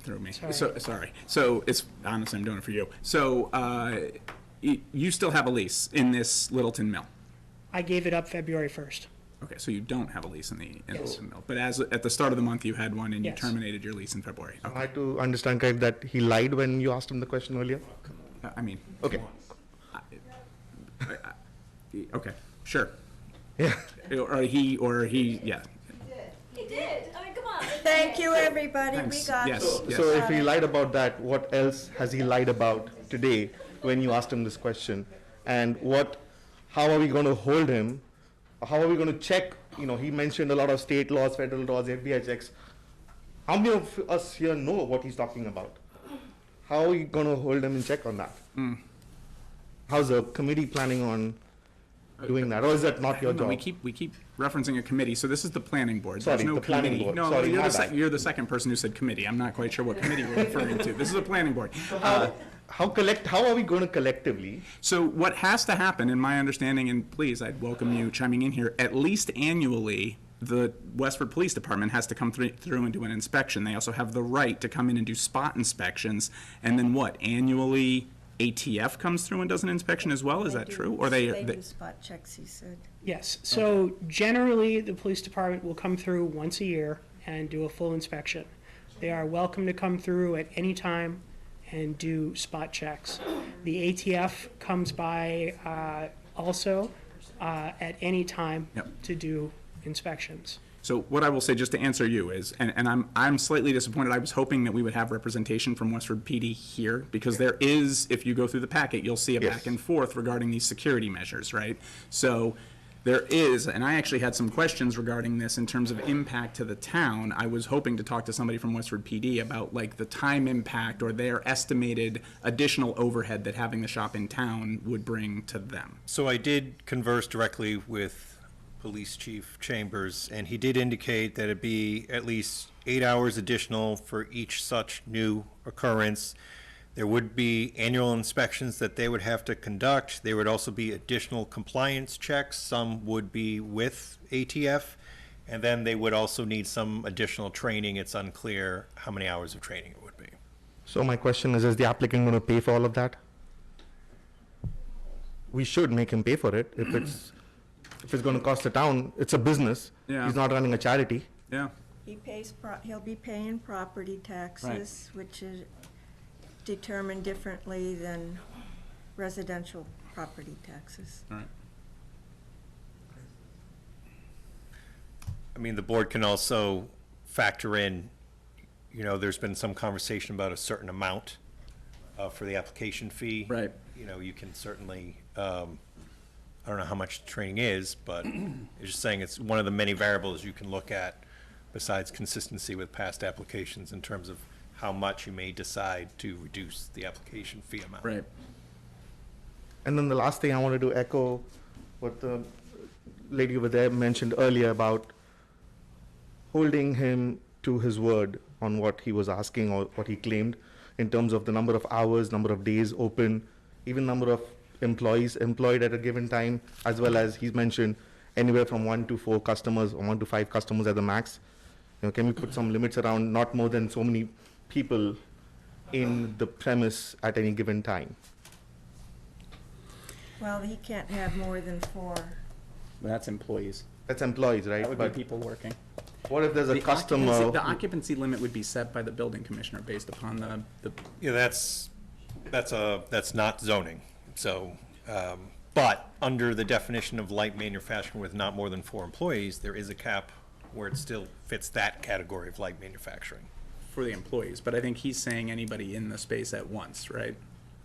through me. Sorry. So, sorry. So it's, honestly, I'm doing it for you. So, uh, y- you still have a lease in this Littleton mill? I gave it up February 1st. Okay, so you don't have a lease in the, in Yes. Littleton mill? But as, at the start of the month, you had one and you Yes. terminated your lease in February? Oh, Okay. I to understand correct that he lied when you asked him the question earlier? I- I mean, Oh. Okay, y- okay, sure. yeah. Or he, or he, yeah. He did. I mean, come on. Thank you, everybody, we Thanks. got you. Yes, So yes. if he lied about that, what else has he lied about today when you asked him this question? And what, how are we going to hold him? How are we going to check? You know, he mentioned a lot of state laws, federal laws, FBI checks. How many of us here know what he's talking about? How are we going to hold him in check on that? Hmm. How's the committee planning on doing that? Or is that not your Hang on, job? We keep, we keep referencing a committee, so this is the planning board. Sorry, There's no the planning committee. board. No, Sorry, you're my the, sec- bad. you're the second person who said committee. I'm not quite sure what committee we're referring to. This is a planning board. Uh, how collect? How are we going to collectively? So what has to happen, in my understanding, and please, I'd welcome you chiming in here, at least annually, the Westford Police Department has to come through, through and do an inspection. They also have the right to come in and do spot inspections. And then what, annually ATF comes through and does an inspection as well? Is that true? Or they, They they- do spot checks, he said. Yes, so generally, the police department will come through once a year and do a full inspection. They are welcome to come through at any time and do spot checks. The ATF comes by uh, also uh, at any time Yep. to do inspections. So what I will say, just to answer you, is, and, and I'm, I'm slightly disappointed, I was hoping that we would have representation from Westford PD here, because there is, if you go through the packet, you'll see a Yes. back and forth regarding these security measures, right? So there is, and I actually had some questions regarding this in terms of impact to the town. I was hoping to talk to somebody from Westford PD about like the time impact or their estimated additional overhead that having the shop in town would bring to them. So I did converse directly with Police Chief Chambers, and he did indicate that it'd be at least eight hours additional for each such new occurrence. There would be annual inspections that they would have to conduct. There would also be additional compliance checks. Some would be with ATF. And then they would also need some additional training. It's unclear how many hours of training it would be. So my question is: Is the applicant going to pay for all of that? We should make him pay for it if it's if it's going to cost the town. It's a business. Yeah. He's not running a charity. Yeah, He pays, pro- he'll be paying property taxes, which is determined differently than residential property taxes. all right. I mean, the board can also factor in, you know, there's been some conversation about a certain amount uh, for the application fee. Right. You know, you can certainly, um, I don't know how much training is, but it's just saying it's one of the many variables you can look at besides consistency with past applications in terms of how much you may decide to reduce the application fee amount. Right. And then the last thing I wanted to echo what the lady over there mentioned earlier about holding him to his word on what he was asking or what he claimed in terms of the number of hours, number of days open, even number of employees employed at a given time, as well as he's mentioned anywhere from one to four customers or one to five customers at the max. You know, can we put some limits around not more than so many people in the premise at any given time? Well, he can't have more than four. That's employees. That's employees, right? That would be But- people working. What if there's a The customer? occupancy- The occupancy limit would be set by the building commissioner based upon the, the, Yeah, that's, that's a, that's not zoning, so, um, but under the definition of light manufacturing with not more than four employees, there is a cap where it still fits that category of light manufacturing. for the employees, but I think he's saying anybody in the space at once, right?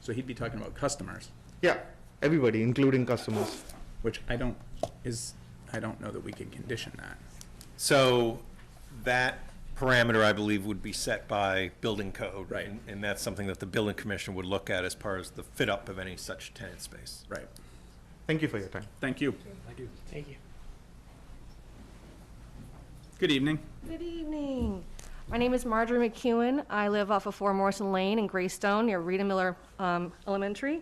So he'd be talking about customers, Yeah, everybody, including customers. which I don't, is, I don't know that we can condition that. So that parameter, I believe, would be set by building code. Right. and- And that's something that the building commissioner would look at as far as the fit up of any such tenant space. Right. Thank you for your time. Thank you. Thank you. Good evening. Good evening. My name is Marjorie McEwen. I live off of Four Morrison Lane in Greystone near Rita Miller um, Elementary.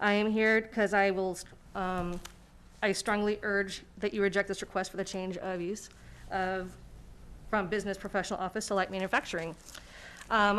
I am here because I will, um, I strongly urge that you reject this request for the change of use of, from business professional office to light manufacturing. Um,